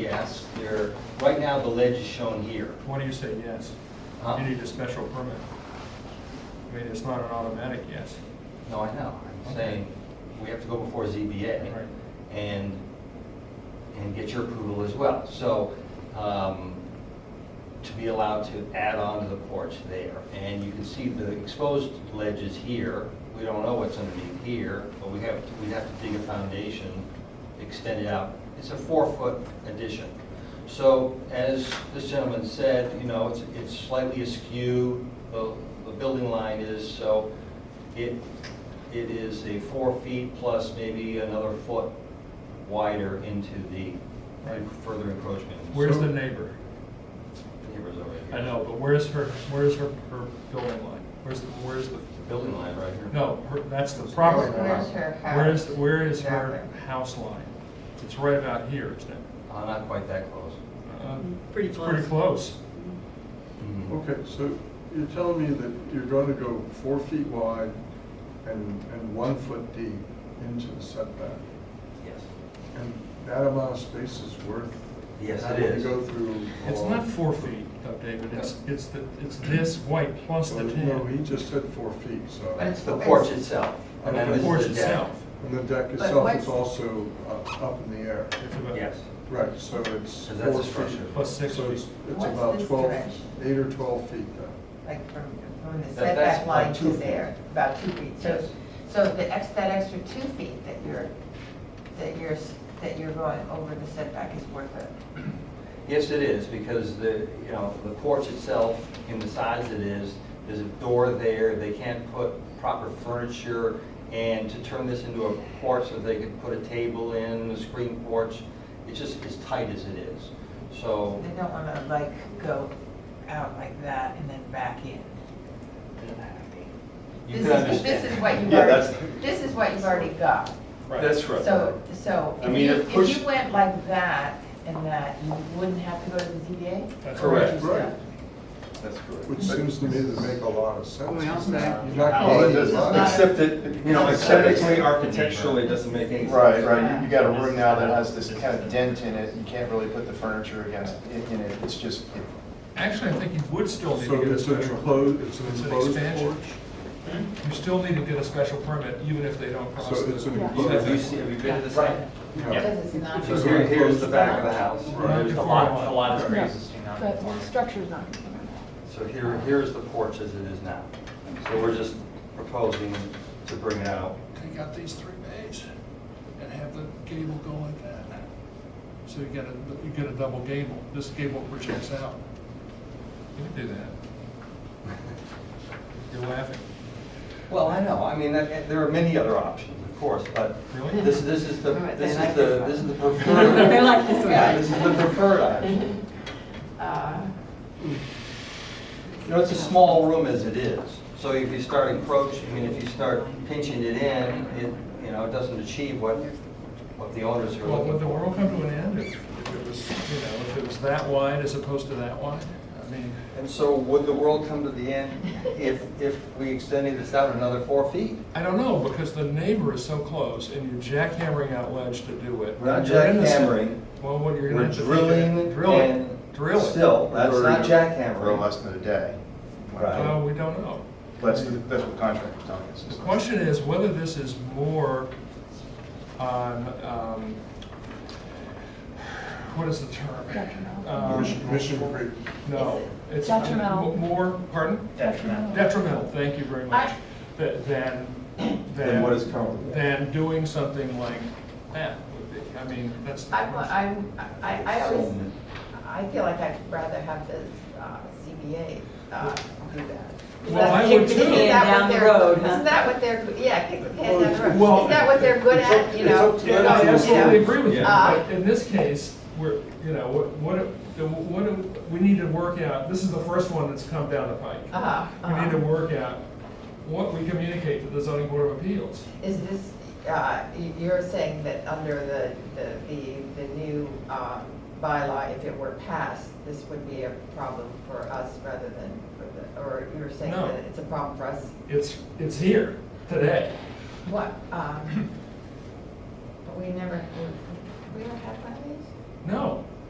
yes, there, right now, the ledge is shown here. Why do you say yes? Huh? You need a special permit. I mean, it's not an automatic yes. No, I know, I'm Okay. saying, we have to go before Right. ZBA and, and get your approval as well. So, um, to be allowed to add on to the porch there. And you can see the exposed ledge is here, we don't know what's underneath here, but we have, we'd have to dig a foundation, extend it out. It's a four-foot addition. So as this gentleman said, you know, it's, it's slightly askew, the, the building line is, so it, it is a four feet plus maybe another foot wider into the further encroachment. Where's So- the neighbor? Neighbor's over here. I know, but where's her, where's her, her building line? Where's, the where's the, The Building line right here. no, her- that's the property line. Where's her house? Where is, where is her Exactly. house line? It's right about here, isn't it? Uh, Not quite that close. Uh, Pretty It's close. pretty close. Mhm. Okay, so you're telling me that you're going to go four feet wide and, and one foot deep into the setback? Yes. And that amount of space is worth? Yes, it having to is. go through? It's all- not four feet though, David, it's, it's the, it's this white plus Well, the No, he tan. just said four feet, so. It's the porch itself. And then the this is porch deck. itself. And the deck But itself what's- is also up up in the air. It's about- Yes. Right, so it's. Because that's a four structure. feet. Plus six So it's- feet. It's What's about this twelve, direction? eight or twelve feet uh, then. Like from, from the That- that's setback like line two to feet. there, about two feet. So, Yes. so the ex, that extra two feet that you're, that you're, s- that you're going over the setback is worth it. Yes, it is, because the, you know, the porch itself, in the size it is, there's a door there, they can't put proper furniture, and to turn this into a porch so they could put a table in, a screen porch, it's just as tight as it is. So, They don't want to like go out like that and then back in. You know what I mean? you This can is- understand. This is what you've Yeah, that's- already, this is what you've already got. That's right. So, so I if mean, you, it if pushed- you went like that and that, you wouldn't have to go to the ZBA? That's Correct. Or would you Right. still? That's correct. Which seems to me to make a lot of sense. Well, we also have- You're not Well, it gaining a doesn't- lot. Except that, you know, aesthetically, architecturally, it doesn't make any sense. Right, right, you you got a room now that has this kind of dent in it, you can't really put the furniture against, in in it, it's just, Actually, I think you would still need to So get a it's an special. enclosed, it's an It's an enclosed expansion. porch? You still need to get a special permit, even if they don't cross. So the- it's an Yeah. enclosed. Have you seen, have you been to the Right. site? Yeah. Because it's not. So here- here's the back of the house. Right. There's a lot, a lot of spaces. No, The the structure's not conforming. So here, here's the porch as it is now. So we're just proposing to bring it out. take out these three bays and have the gable go like that. So you get a, you get a double gable, this gable projects out. You can do that. You're laughing. Well, I know, I mean, that- there are many other options, of course, but Really? this, this is the, All right, this then I is the, guess- this is the preferred. I like this one. Yeah, This is the preferred option. Uh, You know, it's a small room as it is, so if you start encroaching, I mean, if you start pinching it in, it, you know, it doesn't achieve what, what the owners are Well, looking would the for. world come to an end if, if it was, you know, if it was that wide as opposed to that wide? I mean, And so would the world come to the end if, if we extended this out another four feet? I don't know, because the neighbor is so close and you're jackhammering out ledge to do it. We're not You're in the- jackhammering. Well, what you're gonna We're have to. drilling Drill it. and Drill it. still, that's not for jackhammering. less than a day. Right. Well, we don't know. That's, that's what the contractor's telling us. The question is whether this is more on, um, what is the term? Detrimental. Um, Mission Mission Creek. No. it's Detrimental. m- More, pardon? Detrimental, thank you very much, Th- than, than. Than what is currently there. Than doing something like that would be, I mean, that's the I'm, question. I'm, I, I always, I feel like I'd rather have the uh, CBA uh, do that. Well, I would Isn't too. that what Down the they're- road, huh? Isn't that what they're, yeah, kick the can down the road. Well, Is that what they're good it's up- at, you it's know? up to Yeah, them. I You know, absolutely agree with you, Uh, but in this case, we're, you know, what, what, what, what- we need to work out, this is the first one that's come down the pike. Uh-huh, We need uh-huh. to work out what we communicate to the zoning board of appeals. Is this, uh, y- you're saying that under the, the, the, the new um, bylaw, if it were passed, this would be a problem for us rather than for the, or you're saying No. that it's a problem for us? It's, it's here today. What, um, but we never, we- we never had one of these? No,